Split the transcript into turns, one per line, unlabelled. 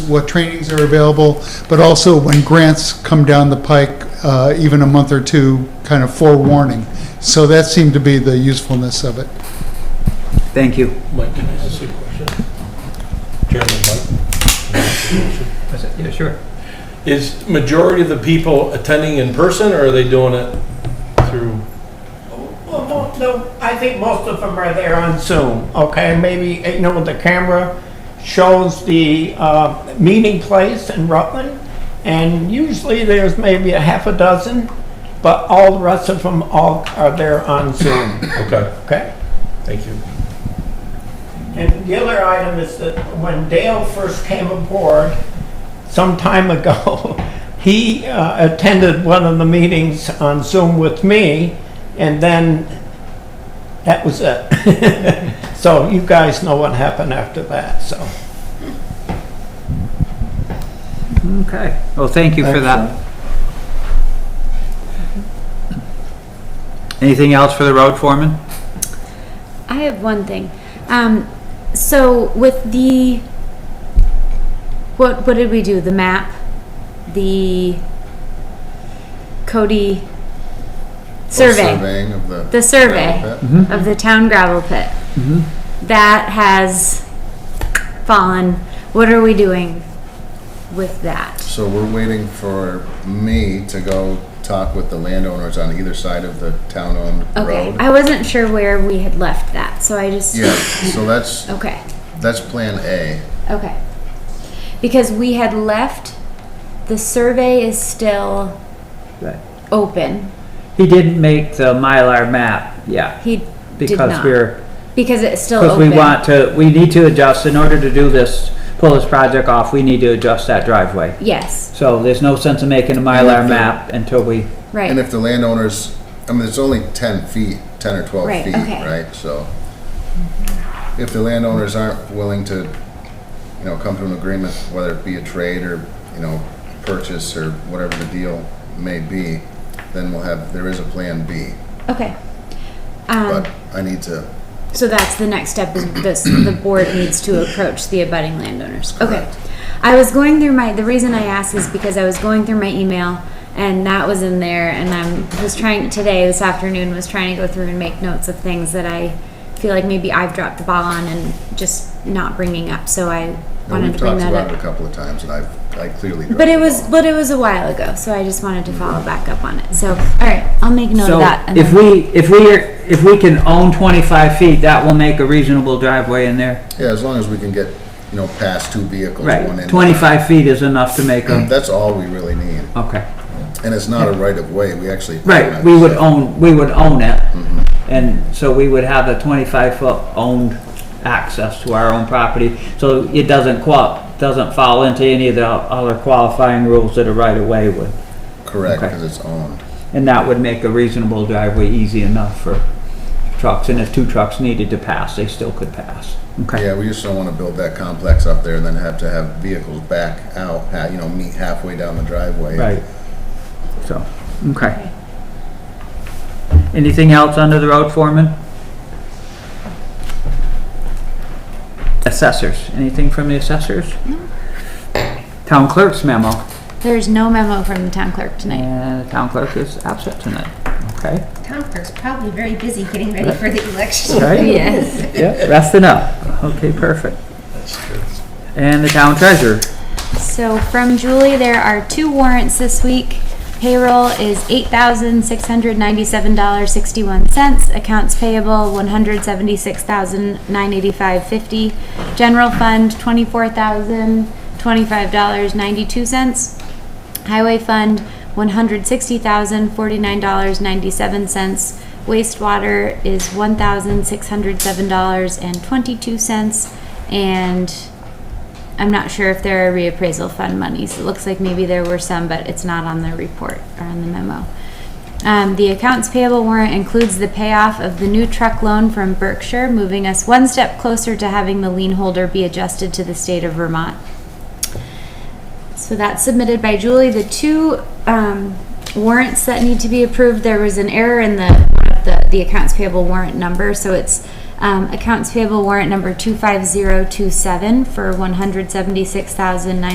what trainings are available, but also when grants come down the pike, uh, even a month or two, kind of forewarning. So that seemed to be the usefulness of it.
Thank you.
Mike, can I ask you a question? Chairman
Yeah, sure.
Mike? Is majority of the people attending in person, or are they doing it through?
Well, mo- no, I think most of them are there on Zoom, okay? Maybe, eh, you know, the camera shows the uh, meeting place in Rutland, and usually there's maybe a half a dozen, but all the rest of them all are there on Zoom,
Okay,
okay?
thank you.
And the other item is that when Dale first came aboard some time ago, he uh, attended one of the meetings on Zoom with me, and then that was it. So you guys know what happened after that, so.
Okay. Well, Oh, thank you for that. Anything else for the road foreman?
I have one thing. Um, so with the, what, what did we do? The map, the Cody survey, Mm-hmm.
Surveying of the.
the survey
That-
of the town gravel pit. That has fallen. What are we doing with that?
So we're waiting for me to go talk with the landowners on either side of the town-owned
Okay,
road.
I wasn't sure where we had left that, so I just,
Yeah, so that's,
okay.
that's Plan A.
Okay. Because we had left, the survey is still
Right.
open.
He didn't make the Mylar map, yeah,
He did
because
not.
we're,
Because it's still
because
open.
we want to, we need to adjust, in order to do this, pull this project off, we need to adjust that driveway.
Yes,
So there's no sense in making a Mylar map until we,
And
right.
if the landowners, I mean, it's only ten feet, ten or twelve
Right,
feet,
okay.
right? So if the landowners aren't willing to, you know, come to an agreement, whether it be a trade or, you know, purchase or whatever the deal may be, then we'll have, there is a Plan B.
Okay. Um,
But I need to,
so that's the next step is this, the board needs to approach the abutting landowners. Okay.
Correct.
I was going through my, the reason I asked is because I was going through my email and that was in there and I was trying, today, this afternoon, was trying to go through and make notes of things that I feel like maybe I've dropped the ball on and just not bringing up, so I
and
wanted
we've
to bring
talked
that
about it a
up.
couple of times and I've, I clearly.
But it
dropped the Mm-hmm.
was,
ball.
but it was a while ago, so I just wanted to follow back up on it. So, all right, I'll make note
so
of that. and
if
then-
we, if we, are- if we can own twenty-five feet, that will make a reasonable driveway in there.
Yeah, as long as we can get, you know, past two vehicles, one
Right,
in. Mm.
twenty-five feet is enough to make a,
That's all we really need.
Oh.
okay.
And it's not a right of way, we actually.
Right, we would own, we would own it, and so we would have a twenty-five foot owned access to our own property, so it doesn't qual, doesn't fall into any of the other qualifying rules that a right of way would.
Correct,
Okay.
because it's owned.
And that would make a reasonable driveway easy enough for trucks, and if two trucks needed to pass, they still could pass. Okay,
Yeah, we just don't want to build that complex up there and then have to have vehicles back out, ha- you know, meet halfway down the driveway.
right. So, okay. Anything else under the road foreman? Assessors, anything from the assessors? Town clerk's memo.
There's no memo from the town clerk tonight.
And the town clerk is absent tonight, okay?
Town clerk's probably very busy getting ready for the election.
Right?
Yes.
Yeah, resting up, okay, perfect. And the town treasurer,
So from Julie, there are two warrants this week. Payroll is eight thousand six hundred ninety-seven dollars sixty-one cents. Accounts payable one hundred seventy-six thousand nine eighty-five fifty. General fund twenty-four thousand twenty-five dollars ninety-two cents. Highway fund one hundred sixty thousand forty-nine dollars ninety-seven cents. Wastewater is one thousand six hundred seven dollars and twenty-two cents. And I'm not sure if there are reappraisal fund monies. It looks like maybe there were some, but it's not on the report or on the memo. Um, the accounts payable warrant includes the payoff of the new truck loan from Berkshire, moving us one step closer to having the lien holder be adjusted to the state of Vermont. So that's submitted by Julie. The two um, warrants that need to be approved, there was an error in the, one of the, the accounts payable warrant number, so it's um, accounts payable warrant number 25027 for 176,900.